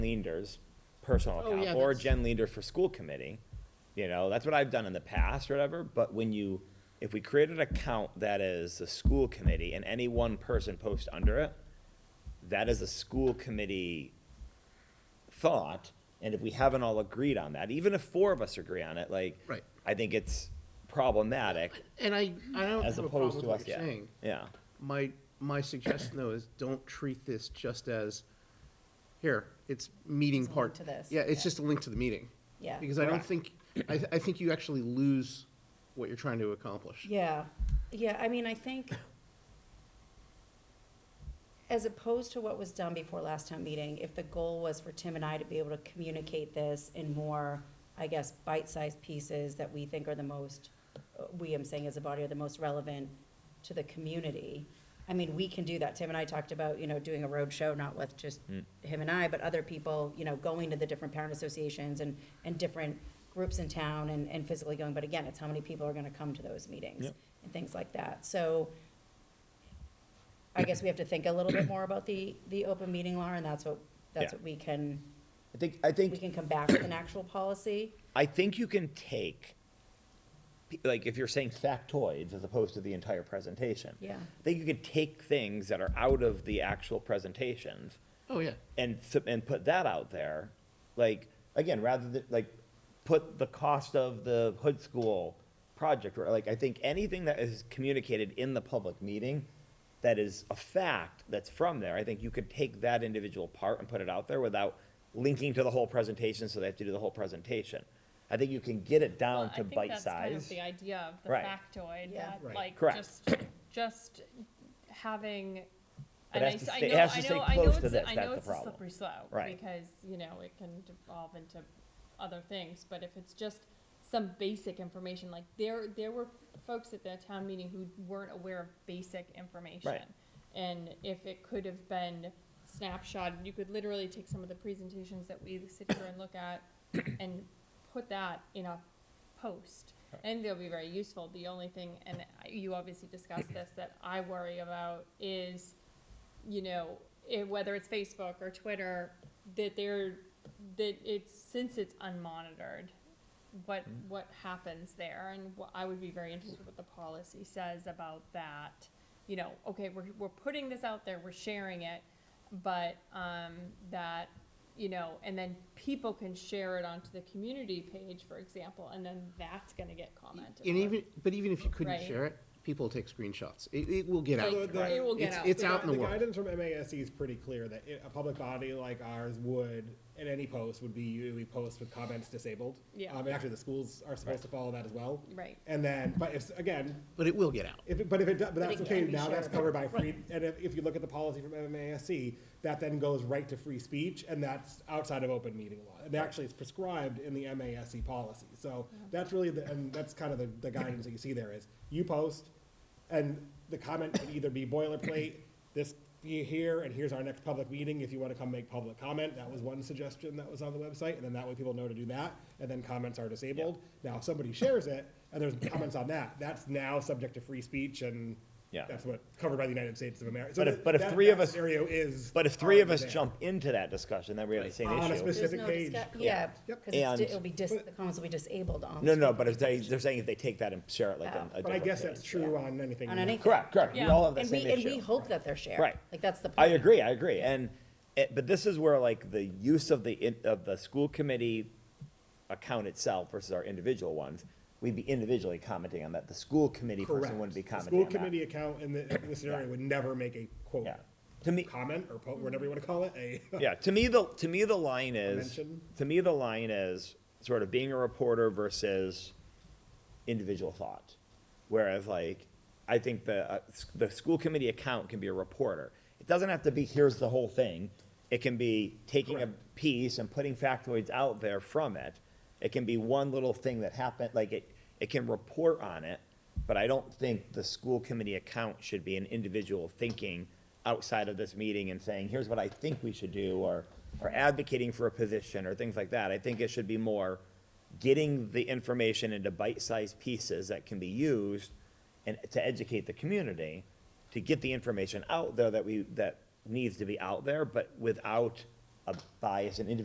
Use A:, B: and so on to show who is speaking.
A: Leander's personal
B: Oh,
A: account
B: yeah,
A: or
B: that's-
A: Jen Leander for school committee. You know, that's what I've done in the past or whatever, but when you, if we create an account that is the school committee and any one person posts under it, that is a school committee thought, and if we haven't all agreed on that, even if four of us agree on it, like,
B: Right.
A: I think it's problematic
B: And I, I don't
A: as
B: have a problem
A: opposed
B: with
A: to us,
B: what you're
A: yeah,
B: saying.
A: yeah,
B: My, my suggestion though is don't treat this just as, here, it's meeting
C: It's a link
B: part.
C: to this,
B: Yeah, it's
C: yeah.
B: just a link to the meeting.
C: Yeah.
B: Because I don't
A: Correct.
B: think, I, I think you actually lose what you're trying to accomplish.
C: Yeah, yeah, I mean, I think, as opposed to what was done before last town meeting, if the goal was for Tim and I to be able to communicate this in more, I guess, bite-sized pieces that we think are the most, uh, we, I'm saying as a body, are the most relevant to the community. I mean, we can do that. Tim and I talked about, you know, doing a road show, not with just him and I, but other people, you know, going to the different parent associations and, and different groups in town and, and physically going. But again, it's how many people are gonna come to those meetings
A: Yep.
C: and things like that. So I guess we have to think a little bit more about the, the open meeting law, and that's what, that's
A: Yeah.
C: what we can,
A: I think, I think.
C: we can come back with an actual policy.
A: I think you can take, like, if you're saying factoids as opposed to the entire presentation.
C: Yeah.
A: I think you could take things that are out of the actual presentations
B: Oh, yeah.
A: and, s- and put that out there. Like, again, rather than, like, put the cost of the hood school project, or like, I think anything that is communicated in the public meeting that is a fact that's from there, I think you could take that individual part and put it out there without linking to the whole presentation, so they have to do the whole presentation. I think you can get it
D: Well,
A: down
D: I
A: to
D: think
A: bite
D: that's kind of
A: size.
D: The idea of the
A: Right.
D: factoid,
C: Yeah.
D: that
B: Right.
D: like,
A: Correct.
D: just, just having.
A: But
D: and
A: it
D: I
A: has
D: s-
A: to
D: I
A: stay- it
D: know-
A: has to
D: I know-
A: stay
D: I know
A: close to
D: it's a-
A: this,
D: I
A: that's
D: know
A: the
D: it's a
A: problem.
D: Slippery slope.
A: Right.
D: Because, you know, it can devolve into other things, but if it's just some basic information, like there, there were folks at that town meeting who weren't aware of basic information. And if it could have been snapshot, you could literally take some of the presentations that we sit here and look at and put that in a post. And they'll be very useful. The only thing, and you obviously discussed this, that I worry about is, you know, it, whether it's Facebook or Twitter, that they're, that it's, since it's unmonitored, what,
B: Hmm.
D: what happens there? And wh- I would be very interested what the policy says about that. You know, okay, we're, we're putting this out there, we're sharing it, but, um, that, you know, and then people can share it onto the community page, for example, and then that's gonna get commented
B: And
D: on.
B: even, but even if you couldn't
D: Right.
B: share it, people will take screenshots. It, it will get out.
D: Like,
B: there.
D: it will get
B: uh, It's-
D: out
B: It's
D: there.
B: out in the world.
E: guidance from MASC is pretty clear that i- a public body like ours would, in any post, would be usually post with comments disabled.
D: Yeah.
E: Um, and actually, the schools are supposed to follow that as well.
D: Right.
E: And then, but if, again,
B: But it will get out.
E: if, it- but if it, do- but that's
C: it
E: okay,
C: can be
E: now that's
C: shared.
E: covered by free, and if, if you look at the policy from MASC, that then goes right to free speech, and that's outside of open meeting law. And actually, it's prescribed in the MASC policy, so that's really the, and that's kind of the, the guidance that you see there is, you post, and the comment can either be boilerplate, this, be here, and here's our next public meeting, if you wanna come make public comment, that was one suggestion that was on the website, and then that way people know to do that, and then comments are disabled. Now, if somebody shares it, and there's comments on that, that's now subject to free speech, and
A: Yeah.
E: that's what, covered by the United States of America. So
A: But if-
E: that-
A: but if
E: that-
A: three of
E: that
A: us-
E: Scenario is.
A: But if three of us
E: already there.
A: jump into that discussion, then we have the same
E: On a
A: issue.
E: specific page.
C: Yeah,
E: Yep.
C: because
A: And-
C: it'll be dis, the comments will be disabled on.
A: No, no, but if they, they're saying if they take that and share it like
C: Yeah.
A: on a
E: But I
A: different
E: guess
A: page,
E: that's true
A: yeah.
E: on anything.
C: On
E: we-
C: anything.
A: Correct, correct. We
D: Yeah.
A: all have the
C: And
A: same
C: we,
A: issue.
C: and we hope that they're shared.
A: Right.
C: Like, that's the point.
A: I agree, I agree, and, it- but this is where like the use of the, in- of the school committee account itself versus our individual ones, we'd be individually commenting on that, the school committee
E: Correct.
A: person wouldn't be
E: The
A: commenting on that.
E: School committee account in the, in the scenario would never make a quote,
A: Yeah. To me-
E: comment or po- whatever you wanna call it, a.
A: Yeah, to me, the, to me, the line is,
E: Mention.
A: to me, the line is sort of being a reporter versus individual thought. Whereas like, I think the, uh, s- the school committee account can be a reporter. It doesn't have to be, here's the whole thing. It can be taking a piece and putting factoids out there from it. It can be one little thing that happened, like it, it can report on it. But I don't think the school committee account should be an individual thinking outside of this meeting and saying, here's what I think we should do, or, or advocating for a position, or things like that. I think it should be more getting the information into bite-sized pieces that can be used and to educate the community, to get the information out there that we, that needs to be out there, but without a bias, an individual